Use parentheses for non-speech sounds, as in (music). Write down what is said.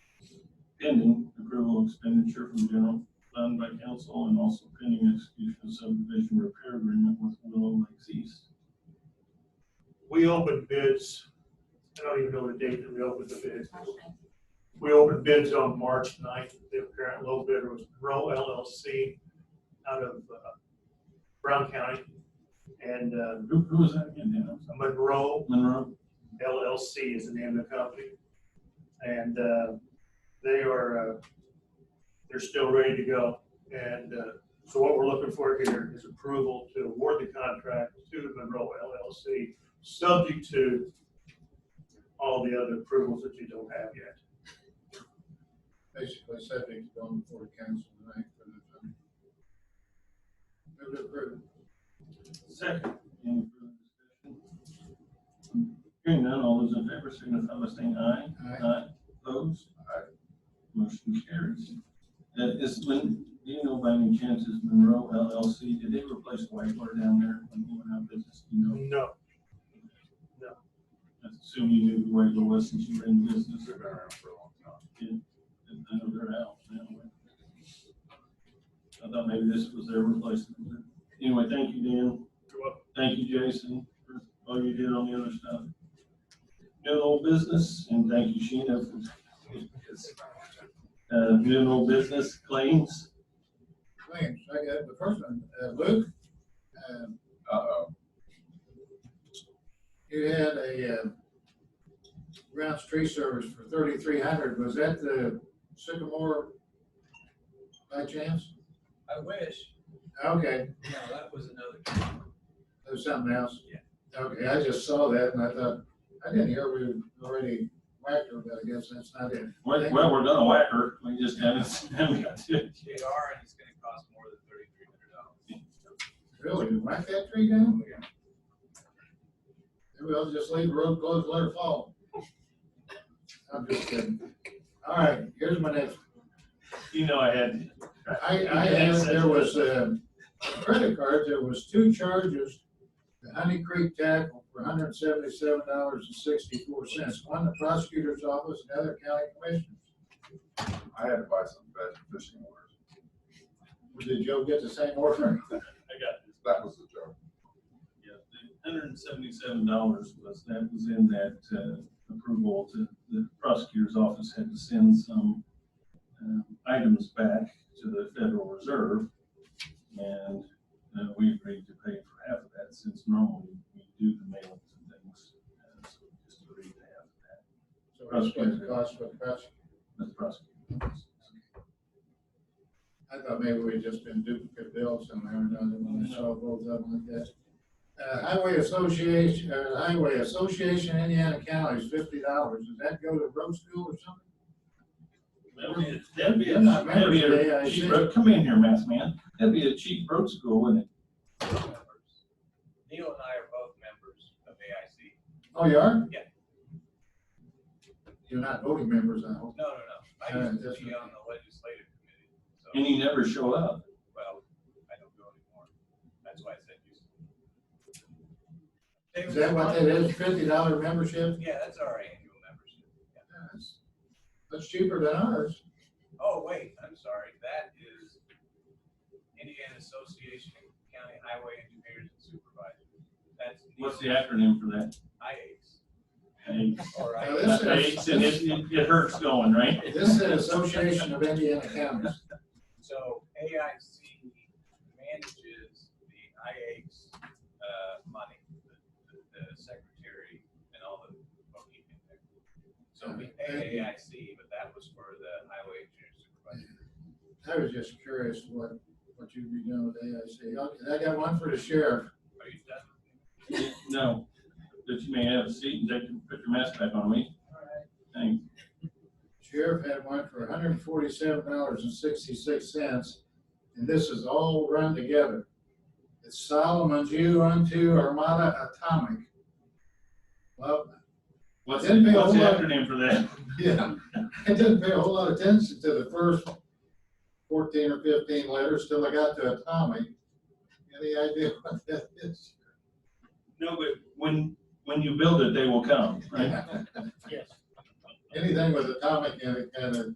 pending approval of expenditure from general fund by council and also pending execution of subdivision repair agreement with Willow Lakes East. We opened bids, I don't even know the date that we opened the bids. We opened bids on March 9th. The apparent low bidder was Row LLC out of uh, Brown County. And uh, Who, who was that again, Dan? I'm sorry. Monroe Monroe? LLC is the name of the company. And uh, they are, uh, they're still ready to go. And uh, so what we're looking for here is approval to award the contract to Monroe LLC, subject to all the other approvals that you don't have yet. basically subject to going before council tonight for the uh, time. Move to approve. Second. Any further discussion? Hearing none, all those in favor signify by saying aye. Aye. Aye. Opposed? Aye. Motion carries. Uh, is, Lynn, do you know by any chance is Monroe LLC, did they replace Whitewater down there when they went out of business? Do You know, No, I assume you knew who Whitewater was since you were in business. They've been around for a long time. And I know they're out now. I thought maybe this was their replacement. Anyway, thank you, Dan. you're welcome. Thank you, Jason, for all you did on the other stuff. New and old business, and thank you, Sheena. for- (laughs) Uh, new and old business claims, Claims, I got the first one, uh, Luke, um, Uh-oh. you had a, uh, grounds tree service for thirty-three hundred, was that the Sycamore by chance? I wish, Okay, no, that was another. there's something else? Yeah. Okay, I just saw that and I thought, I didn't hear we already whacked her, but I guess that's not it. well, well, we're gonna whack her, we just haven't, (laughs) haven't got to. it They yet. are, and it's gonna cost more than thirty-three hundred dollars. Really, you whack that tree down? Oh, Maybe I'll just leave the road closed, let it fall. I'm just kidding. All right, here's my next. You know I had. I, I had, there was a credit card, there was two charges. The Honey Creek tackle for hundred and seventy-seven dollars and sixty-four cents, one the prosecutor's office, another county commissioner's. I had to buy some bad fishing orders. Did Joe get the same order? I got this. That was the joke. Yeah, the hundred and seventy-seven dollars was, that was in that, uh, approval to, the prosecutor's office had to send some, um, items back to the Federal Reserve. And, uh, we agreed to pay for half of that since normally we do the mailings and things. uh, So we just agreed to half of that, So that's what it cost for the prosecutor. but the prosecutor. I thought maybe we'd just been duplicate bills somewhere or another when I saw both of them like that. Uh, Highway Association, uh, Highway Association Indiana Counties, fifty dollars. Does that go to road school or something? That'd be, a- that'd be, a- Yeah, I that'd be remember a today, I cheap said- road, come in here, math man, that'd be a cheap road school, wouldn't it? Neil and I are both members of AIC. Oh, you are? Yeah. You're not voting members, I hope. No, no, no, I used to be on the legislative committee, And so, you never show up. well, I don't go anymore. That's why I said used to. Is that what that is, fifty dollar membership? Yeah, that's our annual membership. yeah. Yes. That's cheaper than ours. Oh, wait, I'm sorry, that is Indiana Association of County Highway Engineers and Supervisors. That's. Neil. What's the acronym for that? IACs. Aches. All right. Now, this is- Aches, and it, it it hurts going, right? This is Association of Indiana Counties. So AIC manages the IAC's uh, money, the, the- the secretary and all the bookkeeping there. So we pay AIC, but that was for the highway engineer supervisor. I was just curious what, what you'd be doing with AIC. Okay, I got one for the sheriff. Are you done? No, but you may have a seat and take, put your mask back on me. All right. Thanks. Sheriff had one for hundred and forty-seven dollars and sixty-six cents, and this is all run together. It's Solomon Jew unto Armada Atomic. Well, (laughs) What's, Didn't pay a what's the whole lot. acronym for that? yeah, I didn't pay a whole lot of attention to the first fourteen or fifteen letters till I got to Atomic. Any idea what that is? No, but when, when (laughs) you build it, they will come, right? Yes. Anything with atomic in it kind of